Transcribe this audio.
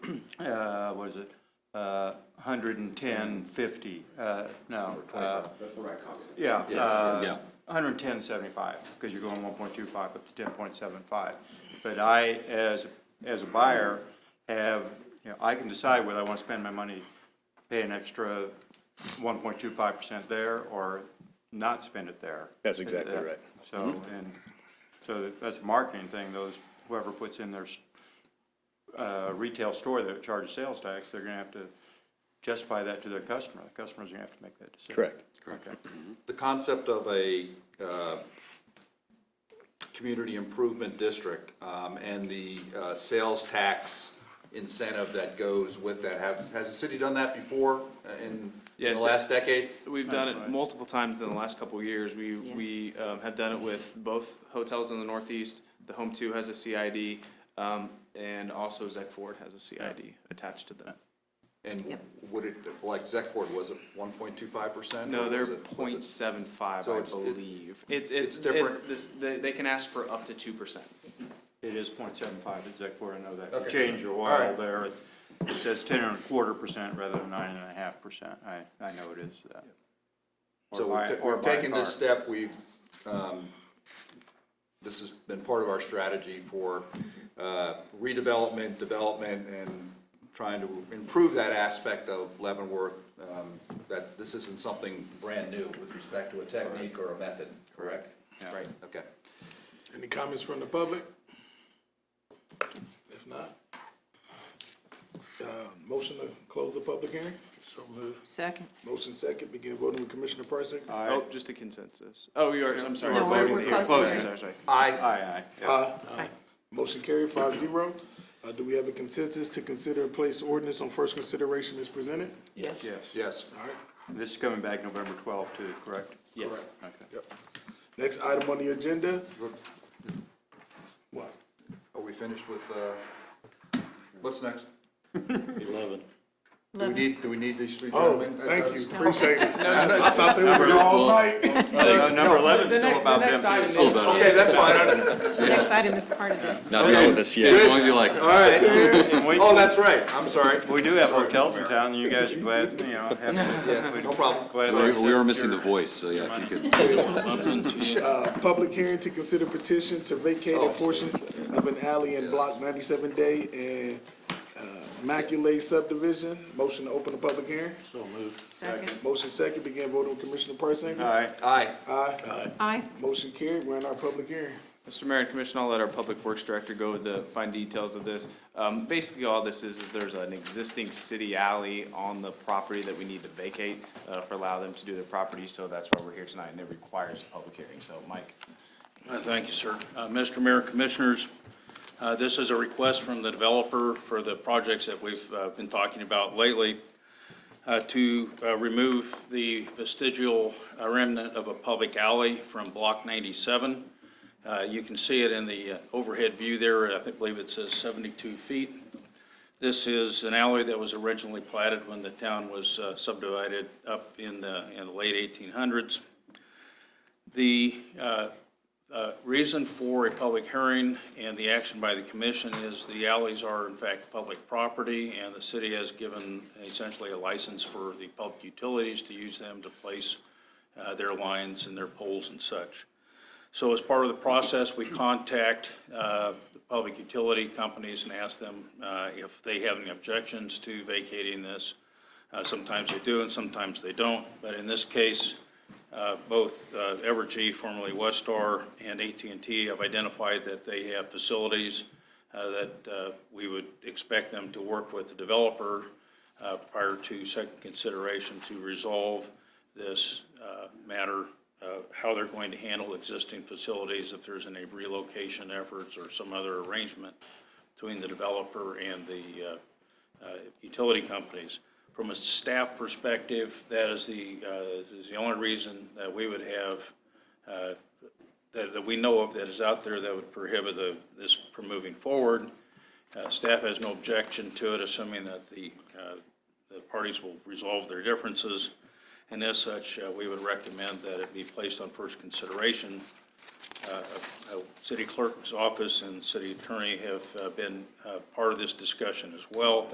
was it? Uh, 110.50, uh, no. uh, That's the right concept. Yeah. uh, yeah. 110.75, because you're going 1.25 up to 10.75. But I, as, as a buyer, have, you know, I can decide whether I want to spend my money, pay an extra 1.25% there or not spend it there. That's exactly right. So, and, so that's a marketing thing, those, whoever puts in their s- uh, retail store that charges sales tax, they're gonna have to justify that to their customer. The customer's gonna have to make that decision. Correct. Okay. The concept of a, uh, community improvement district, um, and the, uh, sales tax incentive that goes with that, has, has the city done that before uh, in, in Yes, the it- last decade? We've done it multiple times in the last couple of years. We, we um, have done it with both hotels in the Northeast. The Home Two has a CID, um, and also Zec Ford has a CID attached to them. And would it, like Zeckford, was it one point two five percent? No, they're point seven five, So I it's- it- believe. It's, it's, it's different. it's, this, they, they can ask for up to two percent. It is point seven five, it's like four, I know that. Okay. Change your All while right. there, it's, it says ten and a quarter percent rather than nine and a half percent. I, I know it is that. Or So by- we've ta- or we've by taken this car. step, we've, um, this has been part of our strategy for uh, redevelopment, development, and trying to improve that aspect of Leavenworth, um, that this isn't something brand new with respect to a technique or a method, correct? Yeah. Right, okay. Any comments from the public? If not, uh, motion to close the public hearing? So moved. Second. Motion second, begin voting with Commissioner Parsons. Aye. Oh, just a consensus. Oh, you are, I'm sorry. No, we're, we're close to Close hearing. Sorry, sorry. I, Aye, aye. Aye. Uh, Motion carried five zero. Uh, do we have a consensus to consider and place ordinance on first consideration as presented? Yes. Yes. yes, All right. This is coming back November twelfth too, correct? Yes. Okay. Yep. Next item on the agenda. What? are we finished with, uh, what's next? Do we Eleven. need, do we need these three Oh, gentlemen? Uh, thank you, appreciate it. I thought they were all night. Uh, Number eleven's still about them. too. Okay, that's fine, I don't- The next item is part of this. Not done with this Good. yet. All right. And we- Oh, that's right, I'm sorry. We do have hotels in town, and you guys are glad, you know, have. Yeah, no problem. glad We to we were accept missing the your- voice, so yeah, if you could. Uh, public hearing to consider petition to vacate a portion of an alley in block ninety-seven day and, uh, Immaculate subdivision. Motion to open the public hearing. Second. Motion second, begin voting with Commissioner Parsons. All right. Aye. Aye. Aye. Motion carried, we're in our public hearing. Mr. Mayor and Commission, I'll let our Public Works Director go with the fine details of this. Um, basically, all this is, is there's an existing city alley on the property that we need to vacate, uh, for allow them to do their property, so that's why we're here tonight, and it requires a public hearing, so Mike. Uh, Thank you, sir. Uh, Mr. Mayor, Commissioners, uh, this is a request from the developer for the projects that we've uh, been talking about lately uh, to uh, remove the vestigial uh, remnant of a public alley from Block 97. Uh, You can see it in the uh, overhead view there. I think- believe it says 72 feet. This is an alley that was originally platted when the town was uh, subdivided up in the in the late 1800s. The uh, uh, reason for a public hearing and the action by the commission is the alleys are in fact public property, and the city has given essentially a license for the public utilities to use them to place uh, their lines and their poles and such. So as part of the process, we contact uh, the public utility companies and ask them uh, if they have any objections to vacating this. Uh, Sometimes they do and sometimes they don't, but in this case, uh, both uh, Evergy, formerly Westar, and at and T have identified that they have facilities uh, that uh, we would expect them to work with the developer uh, prior to second consideration to resolve this uh, matter, uh, how they're going to handle existing facilities, if there's any relocation efforts or some other arrangement between the developer and the uh, uh, utility companies. From a staff perspective, that is the, uh, is the only reason that we would have, uh, that, that we know of that is out there that would prohibit the, this from moving forward. Uh, Staff has no objection to it, assuming that the, uh, the parties will resolve their differences. And as such, uh, we would recommend that it be placed on first consideration uh, City Clerk's office and City Attorney have uh, been uh, part of this discussion as well.